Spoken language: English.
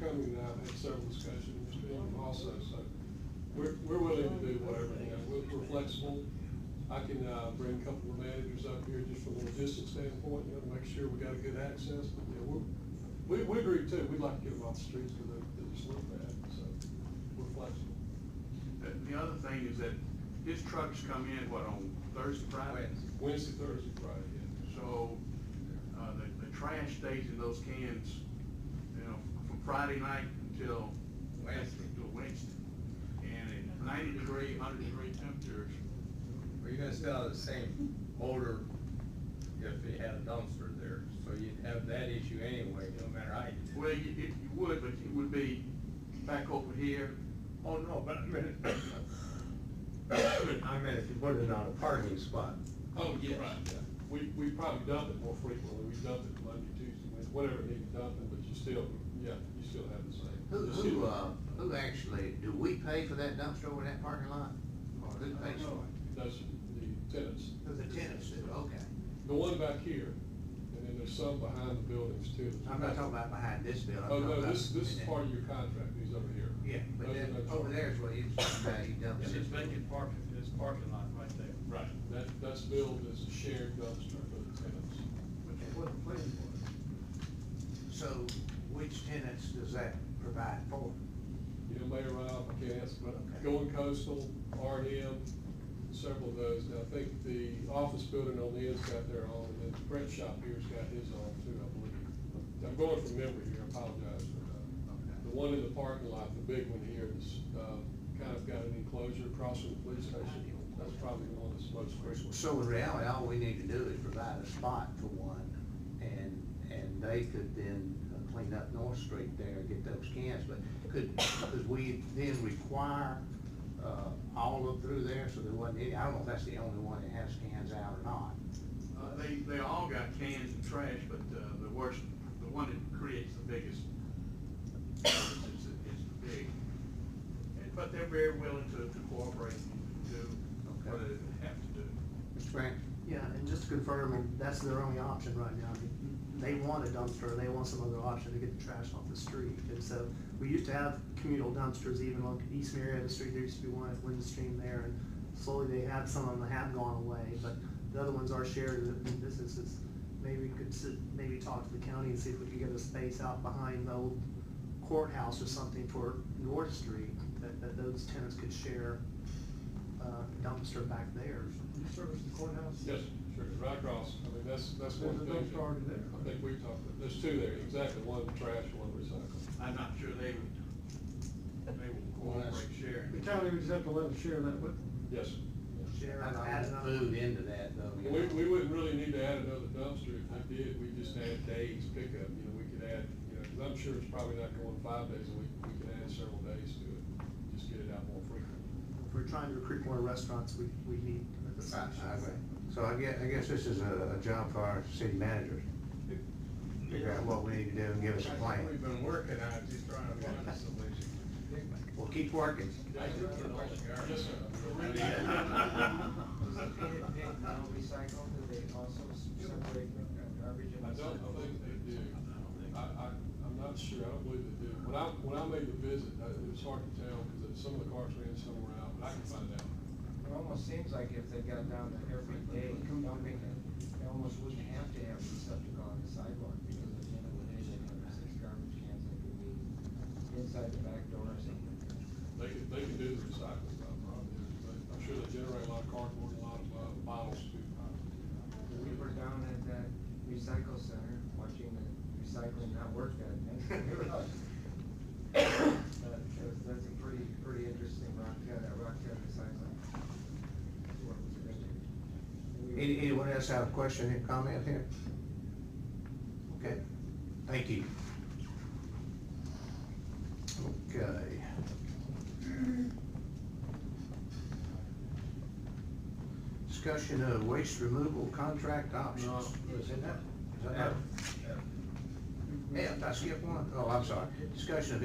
Cumming and I have had several discussions, Mr. Ingram also, so we're, we're willing to do whatever, you know, we're, we're flexible. I can, uh, bring a couple of managers up here just from a logistics standpoint, you know, to make sure we got a good access, but, you know, we're, we, we agree too, we'd like to get them off the streets because they're, they're just look bad, so we're flexible. The, the other thing is that his trucks come in, what, on Thursday, Friday? Wednesday, Thursday, Friday, yeah. So, uh, the, the trash stays in those cans, you know, from Friday night until. Wednesday. Till Wednesday. And at ninety degree, hundred degree temperatures, Well, you're gonna still have the same odor if you had a dumpster there, so you'd have that issue anyway, no matter how you did it. well, you, it, you would, but it would be back over here. Oh, no, but I mean, I mean, if you put it on a parking spot. Oh, yes. Right. yeah. We, we probably dump it more frequently, we dump it Monday, Tuesday, Wednesday, whatever it needs dumping, but you still, yeah, you still have the same. Who, You still- who, uh, who actually, do we pay for that dumpster over in that parking lot? Or who I pays don't know. for it? That's the tenants. Who the tenants do, okay. The one back here, and then there's some behind the buildings too. I'm not talking about behind this building. I'm Oh, talking no, about this, this is in that- part of your contract, he's over here. Yeah, but Those that, are no over charges. there is what you, how you dump It's it. just vacant parking, it's parking lot right there. Right, that, that's billed as a shared dumpster for the tenants. So which tenants does that provide for? You know, Mayor Ralph, I can't answer, but Okay. going coastal, R and M, several of those. And I think the office building on the end's got their own, and then Brett Shop here's got his own too, I believe. I'm going from memory here, I apologize for that. Okay. The one in the parking lot, the big one here, is, uh, kind of got an enclosure across from the police station. That's probably the one that's most frequent. So in reality, all we need to do is provide a spot for one, and, and they could then uh, clean up North Street there and get those cans, but could, could we then require, uh, all of through there, so there wasn't any, I don't know if that's the only one that has cans out or not. Uh, they, they all got cans and trash, but, uh, the worst, the one that creates the biggest, is, is is the big. And, but they're very willing to, to cooperate and do what Okay. they have to do. Mr. Grant? Yeah, and just to confirm, that's their only option right now. They want a dumpster, they want some other option to get the trash off the street. And so, we used to have communal dumpsters even on East Marietta Street, there used to be one at Windstream there. And slowly they have, some of them have gone away, but the other ones are shared in businesses. Maybe we could sit, maybe talk to the county and see if we could get a space out behind the old courthouse or something for North Street, that, that those tenants could share a dumpster back there. You service the courthouse? Yes, sure, right across, I mean, that's, that's one There's thing. a dumpster already there. I think we talked, about there's two there, exactly, one trash, one recycle. I'm not sure they would, they would Well, that's- cooperate, share. The county would just have to let them share that with them. Yes. sir. Share, I and don't add have another. food into that, though. you We, know. we wouldn't really need to add another dumpster, if we did, we just add days pickup, you know, we could add, you know, i I'm sure it's probably not going five days a week, we could add several days to it, just get it out more frequently. If we're trying to recruit more restaurants, we, we need I- the solutions. I agree. So I guess, I guess this is a, a job for our city managers. Figure out what we need to do and give us a plan. We've been working on it, just trying to find a solution. Well, keep working. Yes, sir. recycle, do they also separate garbage and I don't think they do. I, I, I'm not sure, I don't believe they do. When I, when I made the visit, I- it was hard to tell, because some of the cars ran somewhere out, but I can find out. It almost seems like if they got down there every day dumping it, they almost wouldn't have to have the septic on the sidewalk, because at the end of the day, they have six garbage cans that could be inside the back door or something. They can, they can do the recycling, no problem. But I'm sure they generate a lot of cardboard, a lot of uh, bottles too. We were down at that recycle center, watching the recycling not work that day. But that's, that's a pretty, pretty interesting rock, yeah, that rock cut recycling. Work was good. We were- Any- Anyone else have a question or comment here? Okay, thank you. Okay. Discussion of waste removal contract options. Is it that? Is that? F, I skipped one. Oh, I'm sorry. Discussion of